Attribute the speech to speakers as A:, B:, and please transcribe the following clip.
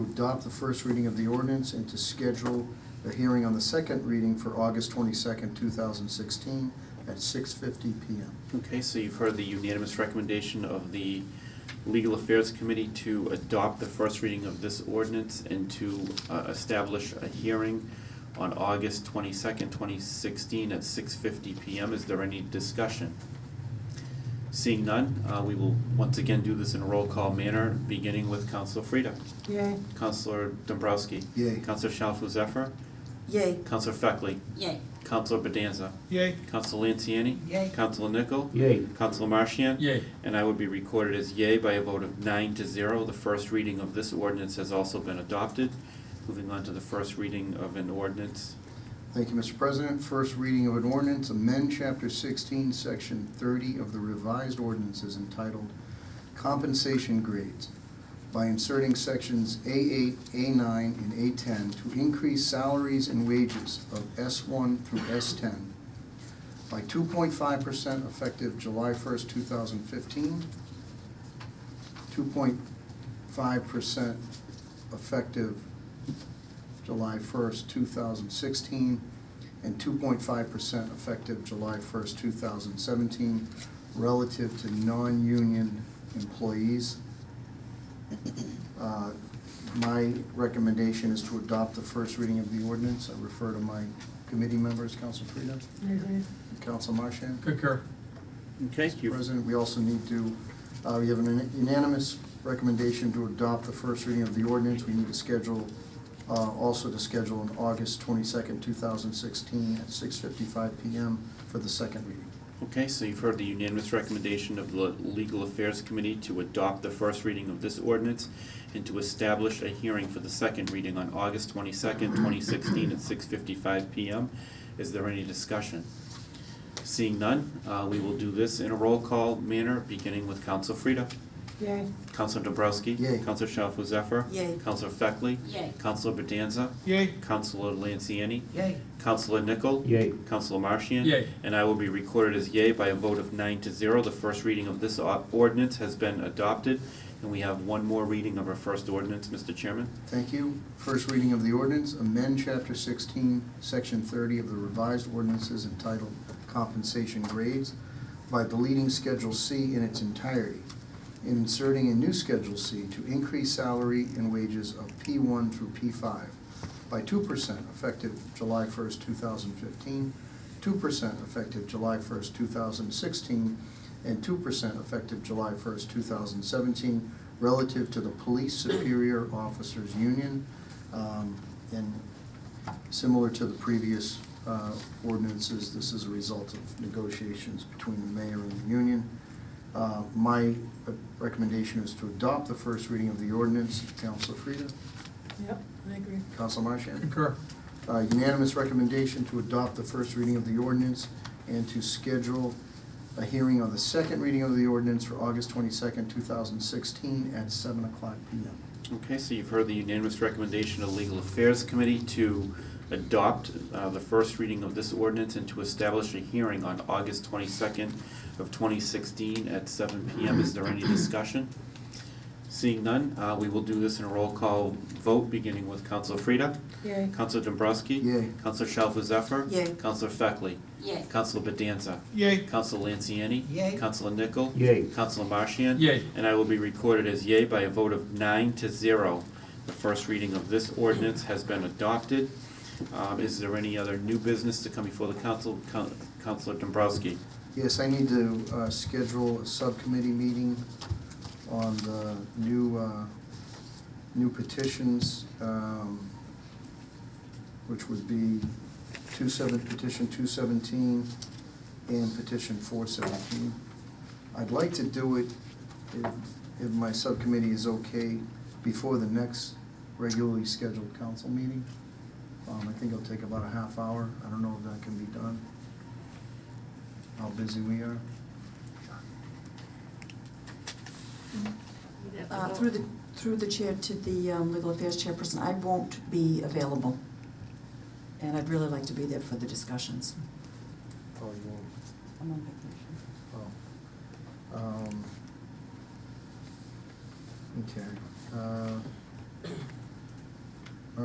A: adopt the first reading of the ordinance and to schedule a hearing on the second reading for August twenty-second, two thousand sixteen, at six fifty PM.
B: Okay, so you've heard the unanimous recommendation of the Legal Affairs Committee to adopt the first reading of this ordinance and to uh, establish a hearing on August twenty-second, twenty sixteen at six fifty PM. Is there any discussion? Seeing none, uh, we will once again do this in a roll call manner, beginning with Council Frida.
C: Yay.
B: Councilor Dombrowski.
A: Yay.
B: Councilor Shalfo Zephyr.
C: Yay.
B: Councilor Feckley.
C: Yay.
B: Councilor Bedanza.
D: Yay.
B: Councilor Lanciani.
C: Yay.
B: Councilor Nichol.
E: Yay.
B: Councilor Marchian.
D: Yay.
B: And I would be recorded as yay by a vote of nine to zero. The first reading of this ordinance has also been adopted. Moving on to the first reading of an ordinance.
A: Thank you, Mr. President. First reading of an ordinance, amend chapter sixteen, section thirty of the revised ordinances entitled Compensation Grades by inserting sections A eight, A nine, and A ten to increase salaries and wages of S one through S ten by two point five percent effective July first, two thousand fifteen, two point five percent effective July 1st, 2016, and 2.5% effective July 1st, 2017, relative to non-union employees. Uh, My recommendation is to adopt the first reading of the ordinance. I refer to my committee members, Council Frida, Council Marchand.
D: Concur.
B: Okay,
A: Mr.
B: you've,
A: President, we also need to, uh, we have an unanimous recommendation to adopt the first reading of the ordinance. We need to schedule, uh, also to schedule on August twenty-second, two thousand sixteen, at six fifty-five PM for the second reading.
B: okay, so you've heard the unanimous recommendation of the Legal Affairs Committee to adopt the first reading of this ordinance and to establish a hearing for the second reading on August twenty-second, twenty sixteen at six fifty-five PM. Is there any discussion? Seeing none, uh, we will do this in a roll call manner, beginning with Council Frida.
C: Yay.
B: Counselor Dobrowski.
A: Yay.
B: Counselor Shalfo Zephyr.
C: Yay.
B: Counselor Feckley.
C: Yay.
B: Counselor Bedanza.
D: Yay.
B: Counselor Lanciani.
C: Yay.
B: Counselor Nichol.
E: Yay.
B: Counselor Marchian.
D: Yay.
B: And I will be recorded as yay by a vote of nine to zero. The first reading of this o- ordinance has been adopted. And we have one more reading of our first ordinance, Mr. Chairman.
A: Thank you. First reading of the ordinance, amend chapter sixteen, section thirty of the revised ordinances entitled compensation grades by deleting Schedule C in its entirety and inserting a new Schedule C to increase salary and wages of P one through P five by two percent effective July first, two thousand fifteen, two percent effective July first, two thousand sixteen, and two percent effective July first, two thousand seventeen, relative to the Police Superior Officers Union, um, and similar to the previous uh, ordinances, this is a result of negotiations between the mayor and the union. Uh, My uh, recommendation is to adopt the first reading of the ordinance. Council Frida?
C: Yep, I agree.
A: Council Marchand?
D: Concur.
A: Uh, Unanimous recommendation to adopt the first reading of the ordinance and to schedule a hearing on the second reading of the ordinance for August twenty-second, two thousand sixteen, at seven o'clock PM.
B: Okay, so you've heard the unanimous recommendation of the Legal Affairs Committee to adopt uh, the first reading of this ordinance and to establish a hearing on August twenty-second of twenty sixteen at seven PM. Is there any discussion? Seeing none, uh, we will do this in a roll call vote, beginning with Council Frida.
C: Yay.
B: Council Dombrowski.
A: Yay.
B: Council Shalfo Zephyr.
C: Yay.
B: Council Feckley.
C: Yay.
B: Council Bedanza.
D: Yay.
B: Council Lanciani.
C: Yay.
B: Council Nichol.
E: Yay.
B: Council Marchian.
D: Yay.
B: And I will be recorded as yay by a vote of nine to zero. The first reading of this ordinance has been adopted. Um, is there any other new business to come before the council? Coun- Councilor Dombrowski.
A: Yes, I need to uh, schedule a subcommittee meeting on the new, uh, new petitions, um, which would be two seven, petition two seventeen and petition four seventeen. I'd like to do it, if, if my subcommittee is okay, before the next regularly scheduled council meeting. Um, I think it'll take about a half hour. I don't know if that can be done, how busy we are.
F: Uh, Through the, through the chair to the um, legal affairs chairperson, I won't be available. And I'd really like to be there for the discussions.
A: Oh, you won't.
F: I'm on vacation.
A: Oh. Um, Okay. uh,